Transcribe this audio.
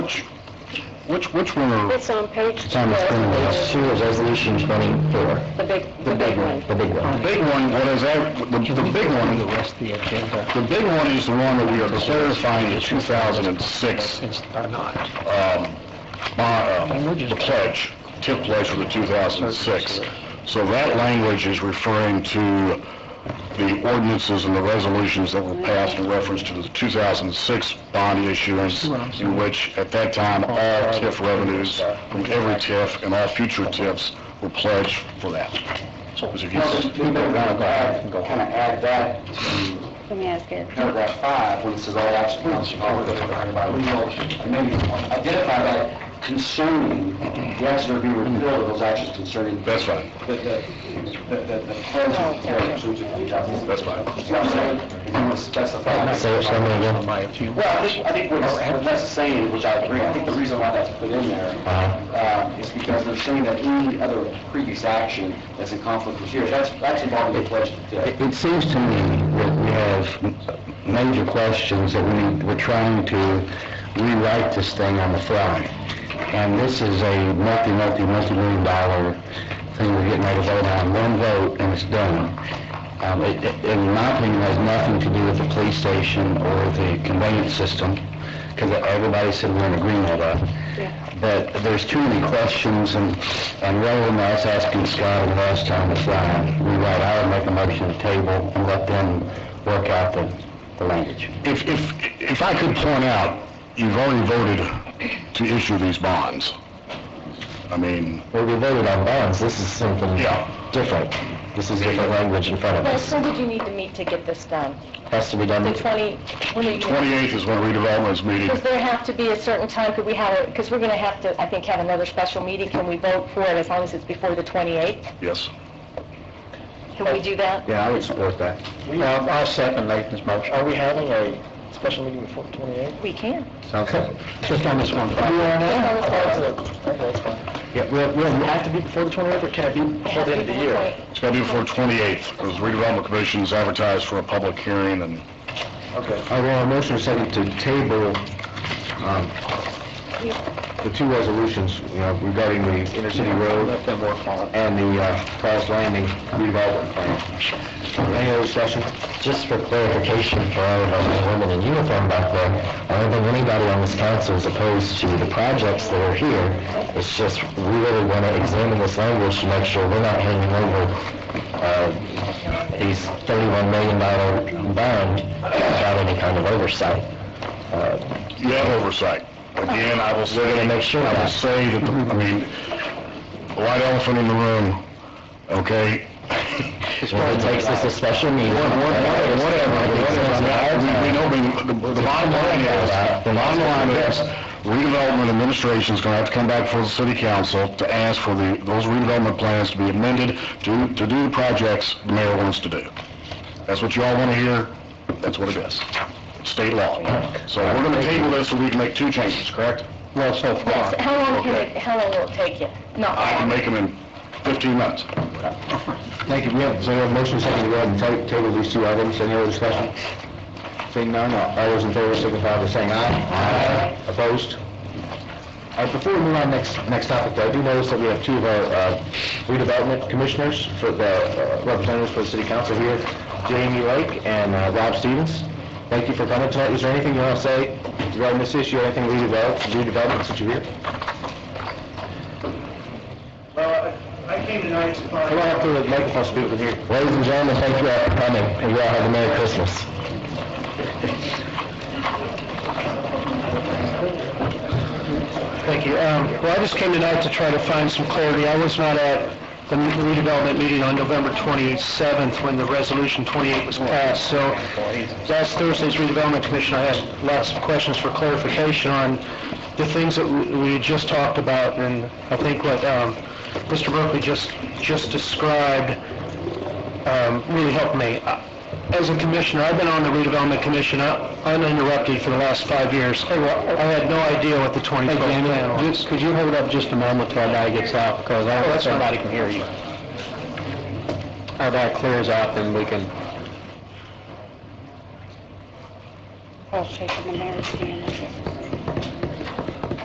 Which, which, which one are? It's on page two. on the screen, yes. Series Resolution 24. The big, The big one, the big The one. big one, what is that, the, the big one, The rest of the agenda the big one is the one that we are clarifying the 2006, is, are not. um, bond, um, the pledge, TIF pledge for the 2006. So that language is referring to the ordinances and the resolutions that were passed in reference to the 2006 bond issuance, in which, at that time, all TIF revenues from every TIF and all future TIFs were pledged for that. So it was a Councilman, we may want to add, kind of add that to Let me ask it. paragraph five, when it says all action council, all the maybe identify that concerning, the actions that be repealed, those actions concerning the, That's fine, the, the, the- the pledge of character, which is the job. that's fine. You know what I'm saying? If you want to specify. Say it, something again. My, if you, Well, I think, I think what Les is saying, which I agree, I think the reason why that's put in there uh, is because they're saying that any other previous action that's in conflict with yours, that's, that's involving the pledge today. It it seems to me that we have major questions that we, need- we're trying to rewrite this thing on the fly. And this is a multi, multi, multi-million dollar thing we're getting ready to vote on, one vote and it's done. Um, it, it- in my opinion, has nothing to do with the police station or the conveyance system, because everybody said we're in agreement about it. But there's too many questions, and, and rather than us asking Scott and Les time to fly, we might, I would make a motion to table and let them work out the, the language. If, if, if I could point out, you've already voted to issue these bonds. I mean, Well, we voted on bonds, this is something Yeah. different. This is different language in front of Well, us. so did you need to meet to get this done? Has to be done. The 20, when are you gonna- 28th is when redevelopment is meeting. Does there have to be a certain time, could we have, because we're going to have to, I think, have another special meeting, can we vote for it as long as it's before the 28th? Yes. Can we do that? Yeah, I would support that. I'll I'll second Nathan's motion. Are we having a special meeting before 28? We can. Sounds good. Just on this one. Yeah. Okay, that's fine. Yeah, we'll, we'll have to Be before the 28th, or can it be before the end of the year? Okay. It's got to be before 28th, because redevelopment commission is advertised for a public hearing, and Okay. I want a Uh, motion second to table, um, the two resolutions, you know, regarding the intercity road Let them work on it. and the uh, Cross Landing redevelopment plan. Any other discussion? Just for clarification for all of our men and women in uniform back there, I don't think anybody on this council is opposed to the projects that are here. It's just, we really want to examine this language to make sure we're not hanging over uh, these $31 million bond without any kind of oversight. Uh, you have oversight. Again, I will say... gonna make sure of I will that. say that, the- I mean, white elephant in the room, okay? Well, it takes us a special meeting. Whatever, whatever. We- we know, we- the the bottom line is, the bottom line is, redevelopment administration's gonna have to come back before the city council to ask for the, those redevelopment plans to be amended to, to do the projects the mayor wants to do. That's what you all wanna hear, that's what it is. State law. So we're gonna table this so we can make two changes, correct? Well, so far. How long can Okay. it, how long will it take you? No. I can make them in fifteen minutes. Thank you. We have, so we have a motion second to go ahead and ta- table these two items. Any other discussion? Seeing none, all all those in favor signify by saying aye. Aye. Opposed? All right, before we move on next, next topic, though, I do notice that we have two of our uh, redevelopment commissioners for the uh, representatives for the city council here, Jamie Lake and uh, Rob Stevens. Thank you for coming tonight. Is there anything you want to say regarding this issue, or anything redevelop- redevelopment since you're here? Well, I I came tonight to Uh, I don't find, have to, Michael wants to speak with you. Ladies and gentlemen, thank you all for coming, and you all have a Merry Christmas. Thank you. Um, Well, I just came tonight to try to find some clarity. I was not at the redevelopment meeting on November 27th when the Resolution 28 was passed, so last Thursday's redevelopment commission, I had lots of questions for clarification on the things that we we had just talked about, and I think what um, Mr. Berkeley just just described um, really helped me. Uh, As a commissioner, I've been on the redevelopment commission uh, uninterrupted for the last five years. I I had no idea what the 2012 plan was. Oh, Could you hold up just a moment till our guy gets out, because I don't think everybody can hear you. Our guy clears out, then we can... I'll shake him and there, see him.